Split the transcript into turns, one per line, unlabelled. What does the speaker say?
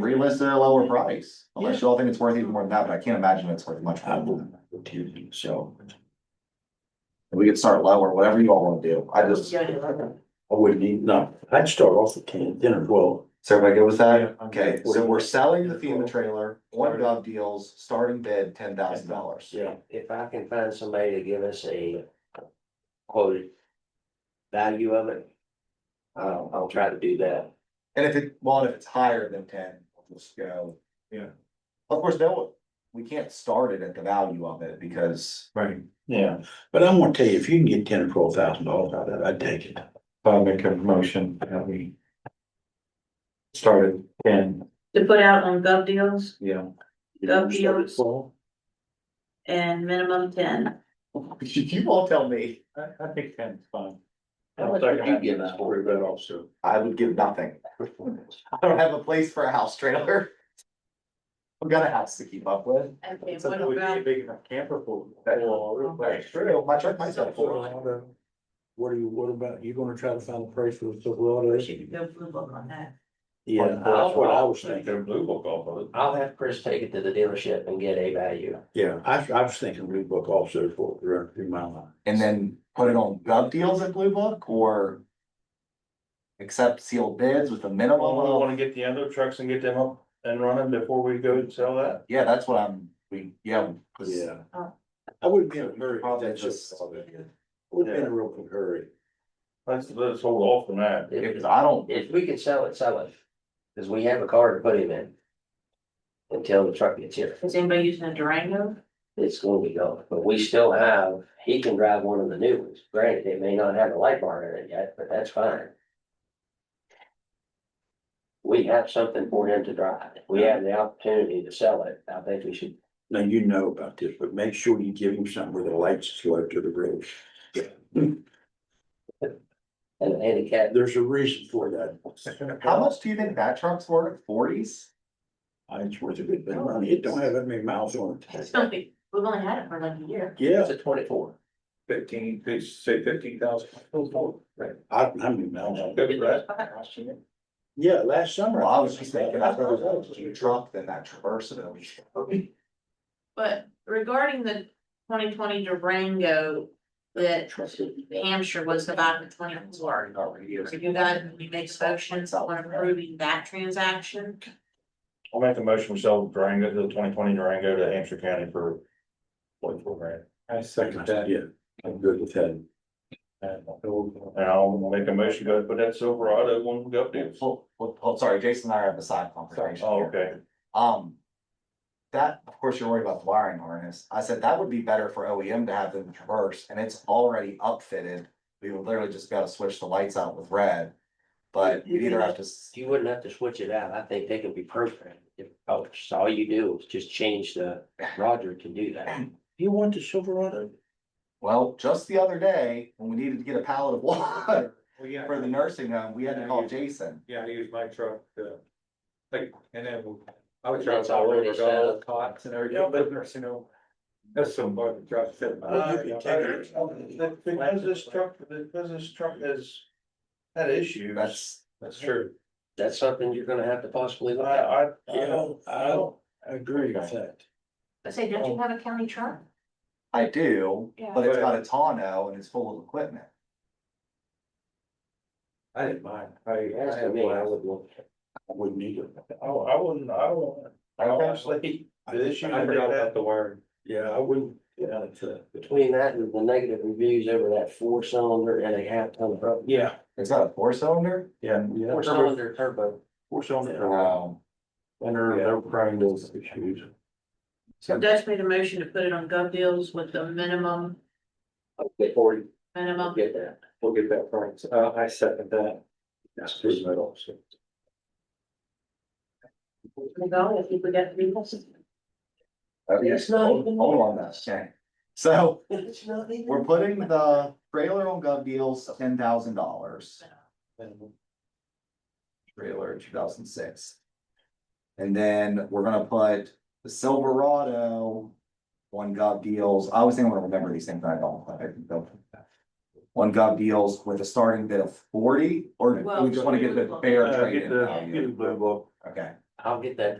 relist at a lower price, unless you all think it's worth even more than that, but I can't imagine it's worth much more than that. So. We could start lower, whatever you all wanna do, I just,
Yeah, yeah, yeah.
I wouldn't need, no, I'd start off at ten, ten or twelve.
so everybody good with that?
Yeah.
Okay, so we're selling the FEMA trailer, one gov deals, starting bid ten thousand dollars.
Yeah.
If I can find somebody to give us a quoted value of it, I'll, I'll try to do that.
And if it, well, and if it's higher than ten, we'll just go.
Yeah.
Of course, no, we can't start it at the value of it because.
Right. Yeah, but I'm gonna tell you, if you can get ten or twelve thousand dollars out of that, I'd take it.
I'll make a motion that we. Started ten,
To put out on gov deals
yeah,
That'd be yours.
Well,
and minimum ten.
You all tell me.
I, I think ten's fine.
How much would you give us for
Worry about also.
I would give nothing. I don't have a place for a house trailer. I've got a house to keep up with.
Okay,
Something we need a big enough camper for.
That-
Well,
That's true. My truck might sell for.
What are you, what about, you gonna try to find a price for the Silverado?
We should go blue book on that.
Yeah, that's what I was thinking.
blue book off of it.
I'll have Chris take it to the dealership and get a value.
Yeah, I, I was thinking Blue Book also for, around three mile line.
And then put it on gov deals at Blue Book or. Accept sealed bids with a minimum
Well, we
of,
Oh, wanna get the other trucks and get them up and running before we go and sell that.
yeah, that's what I'm, we, yeah. 'cause-
Yeah.
Oh.
I wouldn't be in a hurry.
Probably
That's
just-
just- Wouldn't be in a real big hurry.
Let's, let's hold off on that.
Yeah,
If,
'cause I don't,
if we can sell it, sell it, cause we have a car to put him in. Until the truck gets here,
Is anybody using a Durango?
it's going to be gone, but we still have, he can drive one of the new ones, granted, it may not have a light bar in it yet, but that's fine. We have something for him to drive, if we have the opportunity to sell it, I think we should
Now, you know about this, but make sure you give him something where the lights go up to the road.
And the handicap,
There's a reason for that.
how much do you think that truck's worth? Forties?
Uh, It's worth a good
Oh.
bit of money. It don't have that many miles on it.
It's gonna be, we've only had it for like a year.
Yeah,
it's a twenty-four.
Fifteen, they say fifteen thousand.
Right.
I, how many miles on it?
Good, right?
Yeah, last summer.
Well, I was just thinking, I'd rather have a huge truck than that Traverse that we.
But regarding the twenty twenty Durango that Hampshire was about in twenty four. So you guys, we make motions on approving that transaction.
I'll make a motion, we sell Durango, the twenty twenty Durango to Hampshire County for forty-four grand.
I second that.
Yeah, I'm good with that.
And I'll make a motion, go ahead and put that Silverado one up there.
Oh,
Well, well, well, sorry, Jason and I are having a side conversation
Oh,
here.
okay.
Um. That, of course, you're worried about the wiring harness. I said that would be better for OEM to have than the Traverse, and it's already upfitted. We would literally just gotta switch the lights out with red. But we either have to, s-
You wouldn't have to switch it out, I think they can be programmed, if, oh, so all you do is just change the, Roger can do that.
You want the Silverado?
well, just the other day, when we needed to get a pallet of water
Well, yeah,
for the nursing home, we had to call Jason.
yeah, I use my truck, uh, like, and then I
And
would drive
it's
all
already
over,
set
got all
up.
the cots and
Yeah,
everything,
but-
but there's, you know. That's some part of the truck. said about-
Well, you could take
That- Because this truck, because this truck is, that issue.
That's,
That's true.
That's something you're gonna have to possibly
I,
look at.
I, I
Yeah,
don't,
I don't agree with that.
I say, don't you have a county truck?
I do, but it's got a tonneau and it's full of equipment.
I didn't mind. I, I
As to
had
me, I
one.
would look.
I Wouldn't either.
I, I wouldn't, I don't. Honestly, the issue
I forgot
that they
about
have,
the word.
Yeah, I wouldn't, yeah, it's a.
Between that and the negative reviews over that four cylinder and a half ton of,
yeah,
It's got a four cylinder?
Yeah.
four cylinder turbo.
Four cylinder.
Oh.
No.
And they're, they're prime those issues.
So Dutch made a motion to put it on gov deals with the minimum,
Okay, forty, I'll
minimum.
get that.
We'll get that price. Uh, I second that.
That's pretty much also.
We go, if we get three buses.
It's not
Hold
even-
hold on, that's, okay. So.
It's not even-
We're putting the trailer on gov deals, ten thousand dollars.
uh,
Trailer, two thousand six. And then we're gonna put the Silverado. One gov deals, I always think I'm gonna remember these things, but I don't, I don't. One gov deals with a starting bid of forty, or do we just wanna get the fair
Uh,
trade
get
in
the, get the
value?
blue book.
Okay,
I'll get that